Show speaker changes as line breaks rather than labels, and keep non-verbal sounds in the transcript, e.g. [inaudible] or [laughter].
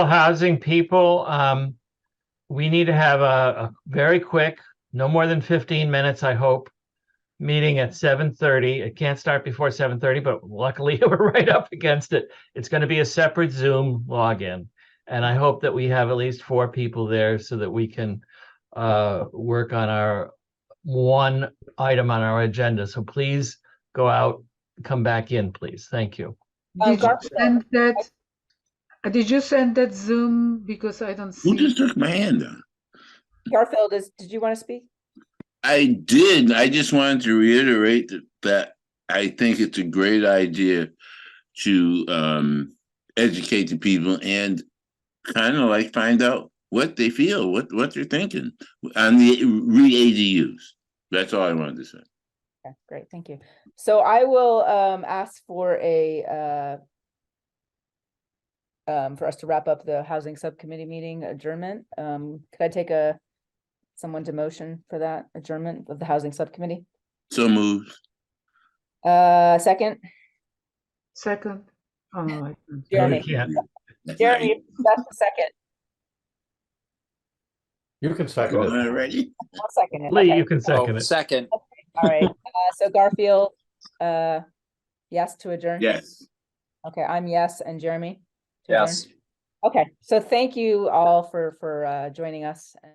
housing people, um, we need to have a, a very quick, no more than fifteen minutes, I hope. Meeting at seven thirty. It can't start before seven thirty, but luckily [laughs] we're right up against it. It's gonna be a separate Zoom login. And I hope that we have at least four people there so that we can, uh, work on our one item on our agenda. So please go out, come back in, please. Thank you.
Oh,
Did you
gotcha.
send that? uh, Did you send that Zoom? Because I don't see.
Who just took my hand down?
Garfield is, did you want to speak?
I did. I just wanted to reiterate that, that I think it's a great idea to um, educate the people and kind of like find out what they feel, what what they're thinking on the re ADUs. That's all I wanted to say.
Okay, great, thank you. So I will um ask for a uh um for us to wrap up the housing subcommittee meeting adjournment. Um, could I take a someone to motion for that adjournment of the housing subcommittee?
So moved.
Uh, second,
Second. Oh, I don't.
No, we
Jeremy.
can't.
Jeremy, that's the second,
You can
Go
second
on
it.
already.
I'll second it.
Lee,
okay.
you can
Oh,
second it.
second,
All right, uh, so Garfield, uh, yes to adjourn?
Yes.
Okay, I'm yes, and Jeremy? to adjourn?
yes.
Okay, so thank you all for, for, uh, joining us.